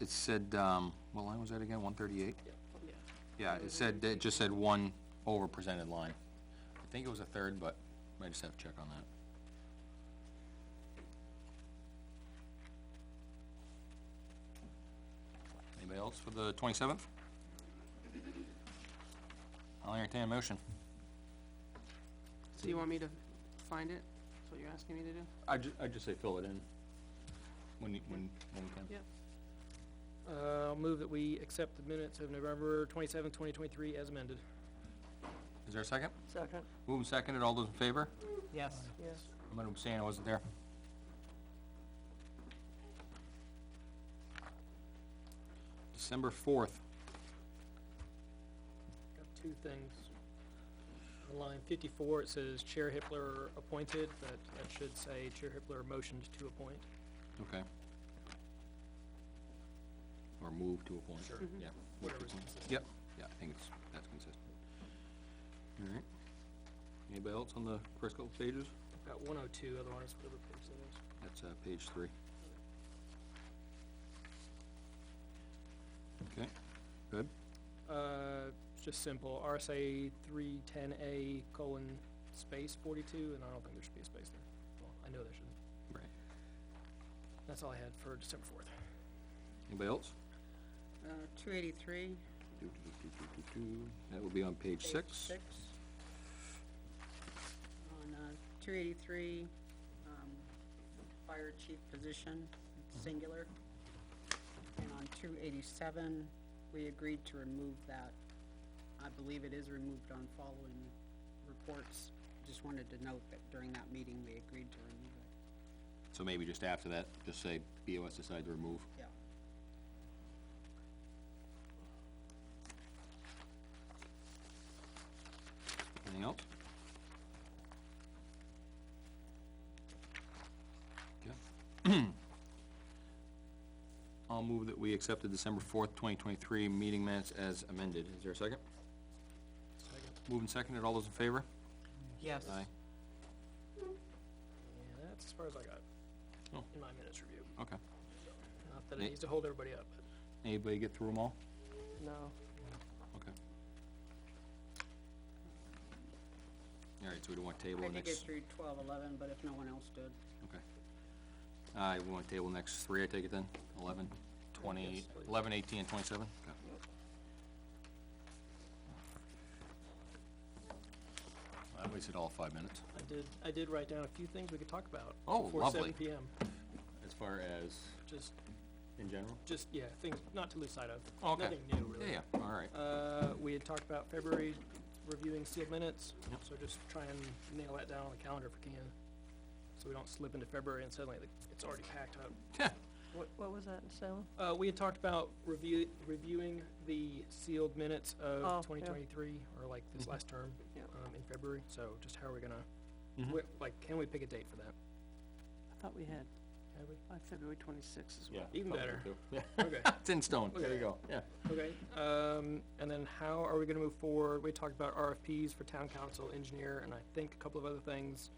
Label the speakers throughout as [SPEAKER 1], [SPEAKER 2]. [SPEAKER 1] it said, um, what line was that again, one thirty-eight?
[SPEAKER 2] Yeah.
[SPEAKER 1] Yeah, it said, it just said one overrepresented line. I think it was a third, but I just have to check on that. Anybody else for the twenty-seventh? I'll entertain a motion.
[SPEAKER 2] So you want me to find it? That's what you're asking me to do?
[SPEAKER 1] I ju- I just say fill it in. When you, when, when we can.
[SPEAKER 2] Yeah.
[SPEAKER 3] Uh, I'll move that we accept the minutes of November twenty-seventh, twenty twenty-three as amended.
[SPEAKER 1] Is there a second?
[SPEAKER 4] Second.
[SPEAKER 1] Move and seconded, all those in favor?
[SPEAKER 3] Yes.
[SPEAKER 4] Yes.
[SPEAKER 1] I'm gonna abstain, I wasn't there. December fourth,
[SPEAKER 3] Got two things. On line fifty-four, it says Chair Hippler appointed, but that should say Chair Hippler motioned to appoint.
[SPEAKER 1] okay. Or move to appoint. Sure. Yeah. What-
[SPEAKER 3] Whatever's consistent.
[SPEAKER 1] Yep, yeah, I think it's, that's consistent. Alright. Anybody else on the first couple pages?
[SPEAKER 3] Got one oh two, otherwise whatever page that is.
[SPEAKER 1] That's, uh, page three. Okay, good.
[SPEAKER 3] Uh, it's just simple, RSA three ten A colon space forty-two, and I don't think there should be a space there. Well, I know there shouldn't.
[SPEAKER 1] Right.
[SPEAKER 3] That's all I had for December fourth.
[SPEAKER 1] Anybody else?
[SPEAKER 4] Uh, two eighty-three.
[SPEAKER 1] Do, do, do, do, do, do. That would be on page six.
[SPEAKER 4] Six. On, uh, two eighty-three, um, fire chief position,
[SPEAKER 1] Mm-hmm.
[SPEAKER 4] it's singular. And on two eighty-seven, we agreed to remove that. I believe it is removed on following reports. Just wanted to note that during that meeting, we agreed to remove it.
[SPEAKER 1] So maybe just after that, just say BOS decided to remove.
[SPEAKER 4] Yeah.
[SPEAKER 1] Anything else? Okay. I'll move that we accept the December fourth, twenty twenty-three meeting minutes as amended. Is there a second?
[SPEAKER 3] Second.
[SPEAKER 1] Moving seconded, all those in favor?
[SPEAKER 4] Yes.
[SPEAKER 3] Yeah, that's as far as I got
[SPEAKER 1] Oh.
[SPEAKER 3] in my minutes review.
[SPEAKER 1] Okay.
[SPEAKER 3] Not that
[SPEAKER 1] Nate?
[SPEAKER 3] it needs to hold everybody up, but.
[SPEAKER 1] Anybody get through them all?
[SPEAKER 4] No.
[SPEAKER 1] Okay. All right, so we don't want to table
[SPEAKER 4] I
[SPEAKER 1] next.
[SPEAKER 4] did get through twelve eleven, but if no one else did,
[SPEAKER 1] Okay. Uh, we want to table next three, I take it then? Eleven, twenty,
[SPEAKER 3] Yes, please.
[SPEAKER 1] eleven, eighteen, and twenty-seven? Okay. I wasted all five minutes.
[SPEAKER 3] I did, I did write down a few things we could talk about.
[SPEAKER 1] Oh,
[SPEAKER 3] Before
[SPEAKER 1] lovely.
[SPEAKER 3] seven PM,
[SPEAKER 1] As far as,
[SPEAKER 3] just,
[SPEAKER 1] in general?
[SPEAKER 3] just, yeah, things not to lose sight of.
[SPEAKER 1] Oh, Okay.
[SPEAKER 3] Nothing new, really.
[SPEAKER 1] Yeah, yeah, all right.
[SPEAKER 3] Uh, we had talked about February reviewing sealed minutes,
[SPEAKER 1] Yep.
[SPEAKER 3] so just try and nail that down on the calendar if we can. So we don't slip into February and suddenly the- it's already packed up.
[SPEAKER 5] What, what was that, Salem?
[SPEAKER 3] Uh, we had talked about review, reviewing the sealed minutes
[SPEAKER 5] Oh,
[SPEAKER 3] of
[SPEAKER 5] yeah.
[SPEAKER 3] twenty twenty-three, or like this
[SPEAKER 1] Mm-hmm.
[SPEAKER 3] last term,
[SPEAKER 5] Yeah.
[SPEAKER 3] um, in February, so just how are we gonna,
[SPEAKER 1] Mhm.
[SPEAKER 3] wh- like, can we pick a date for that?
[SPEAKER 5] I thought we had,
[SPEAKER 3] Have we?
[SPEAKER 5] uh, February twenty-sixth is
[SPEAKER 1] Yeah.
[SPEAKER 5] well.
[SPEAKER 3] Even
[SPEAKER 1] probably
[SPEAKER 3] better.
[SPEAKER 1] do. Yeah,
[SPEAKER 3] Okay.
[SPEAKER 1] It's in stone, there you
[SPEAKER 3] Okay.
[SPEAKER 1] go, yeah.
[SPEAKER 3] Okay, um, and then how are we gonna move forward? We talked about RFPs for town council, engineer, and I think a couple of other things,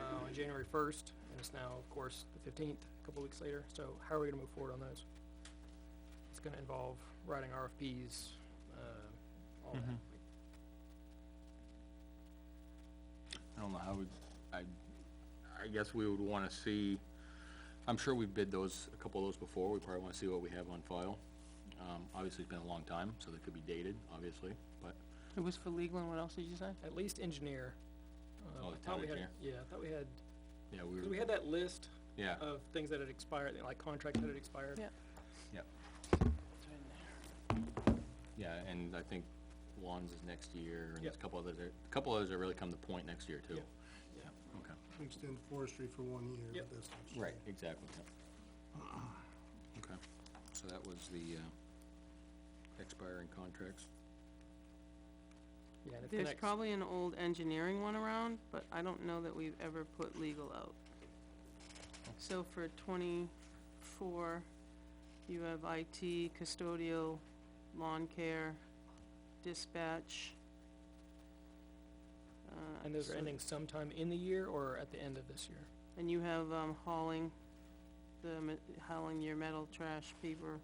[SPEAKER 3] uh, on January first, and it's now, of course, the fifteenth, a couple of weeks later, so how are we gonna move forward on those? It's gonna involve writing RFPs, uh, all
[SPEAKER 1] Mhm.
[SPEAKER 3] that.
[SPEAKER 1] I don't know how we, I, I guess we would wanna see, I'm sure we've bid those, a couple of those before, we probably wanna see what we have on file. Um, obviously, it's been a long time, so they could be dated, obviously, but,
[SPEAKER 5] It was for legal, and what else did you say?
[SPEAKER 3] At least engineer. Uh,
[SPEAKER 1] Oh, the
[SPEAKER 3] I thought
[SPEAKER 1] town
[SPEAKER 3] we had-
[SPEAKER 1] engineer.
[SPEAKER 3] Yeah, I thought we had,
[SPEAKER 1] yeah,
[SPEAKER 3] cause
[SPEAKER 1] we
[SPEAKER 3] we
[SPEAKER 1] were,
[SPEAKER 3] had that list
[SPEAKER 1] yeah,
[SPEAKER 3] of things that had expired, like contracts that had expired.
[SPEAKER 5] Yeah.
[SPEAKER 1] yeah. Yeah, and I think Lon's is next year, and there's a
[SPEAKER 3] Yep.
[SPEAKER 1] couple others, there- a couple others that really come to point next year, too.
[SPEAKER 3] Yep.
[SPEAKER 1] Yeah, okay,
[SPEAKER 6] We extend forestry for one year,
[SPEAKER 3] Yep.
[SPEAKER 6] but that's not
[SPEAKER 1] right, exactly, yeah. Okay, so that was the, uh, expiring contracts.
[SPEAKER 3] Yeah, and if the
[SPEAKER 2] There's
[SPEAKER 3] next-
[SPEAKER 2] probably an old engineering one around, but I don't know that we've ever put legal out. So for twenty-four, you have IT, custodial, lawn care, dispatch. uh,
[SPEAKER 3] And those are
[SPEAKER 2] so-
[SPEAKER 3] ending sometime in the year or at the end of this year?
[SPEAKER 2] And you have, um, hauling, the, ma- hauling your metal, trash, paper,